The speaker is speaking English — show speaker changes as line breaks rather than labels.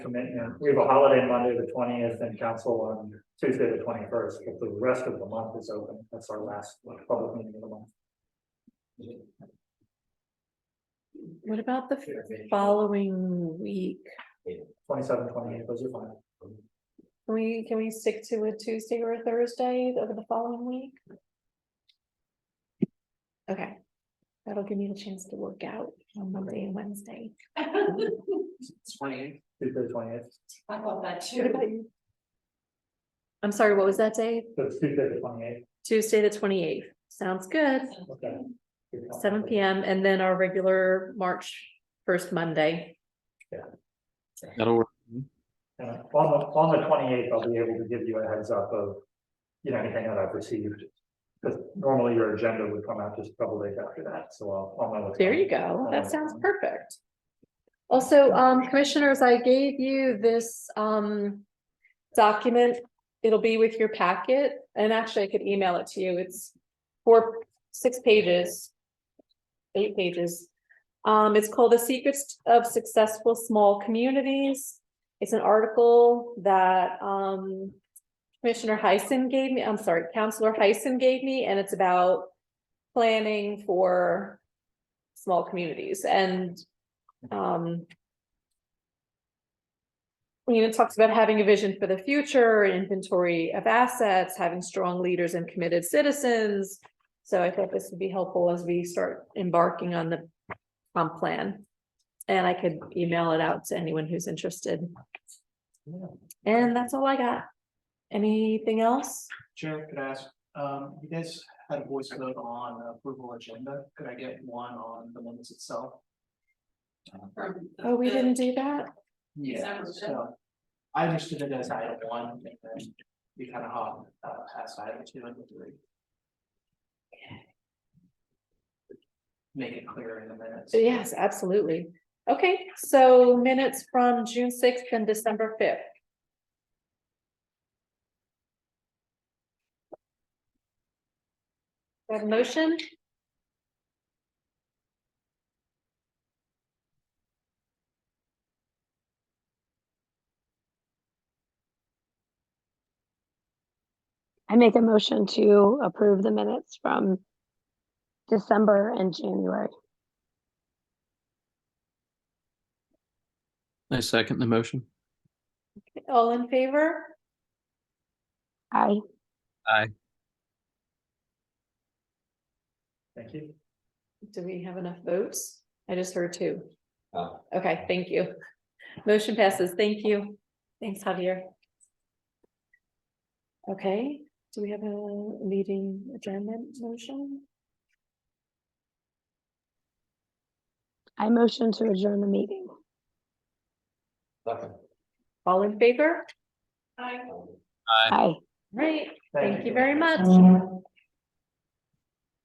commitment, we have a holiday Monday the twentieth and council on Tuesday the twenty-first, but the rest of the month is open, that's our last public meeting of the month.
What about the following week?
Twenty-seven, twenty-eight, those are fine.
Can we, can we stick to a Tuesday or a Thursday over the following week? Okay, that'll give me the chance to work out on Monday and Wednesday.
Twenty.
Tuesday the twenty-eighth,
I thought that
What
too.
about you? I'm sorry, what was that day?
that's Tuesday the twenty-eighth.
Tuesday, the twenty eighth. Sounds good.
Okay.
Seven P M and then our regular March first Monday.
That'll work.
And on the, on the twenty-eighth, I'll be able to give you a heads up of, you know, anything that I've received. Because normally your agenda would come out just a couple days after that, so I'll, I'll know. what's
There
going
you
on.
go. That sounds perfect. Also, um, commissioners, I gave you this, um, document. It'll be with your packet and actually I could email it to you. It's four, six pages. Eight pages. Um, it's called The Secrets of Successful Small Communities. It's an article that, um, Commissioner Heisen gave me, I'm sorry, Counselor Heisen gave me, and it's about planning for small communities and um. You know, it talks about having a vision for the future, inventory of assets, having strong leaders and committed citizens. So I thought this would be helpful as we start embarking on the comp plan. And I could email it out to anyone who's interested. And that's all I got. Anything else?
Chair, could I ask, um, you guys had a voice vote on approval agenda, could I get one on the minutes itself?
From the-
Oh, we didn't do that?
Yeah,
Sounds good.
so. I understood it as item one, and then we kind of hop, uh, past item two and three. Make it clear in the minutes.
Yes, absolutely. Okay, so minutes from June sixth and December fifth. Have a motion?
I make a motion to approve the minutes from December and January.
I second the motion.
All in favor?
I,
Thank you.
Do we have enough votes? I just heard two. Okay, thank you. Motion passes. Thank you. Thanks, Javier. Okay, do we have a meeting adjournment motion?
I motion to adjourn the meeting.
All in favor?
Hi.
Aye.
Right, thank you
you.
very much.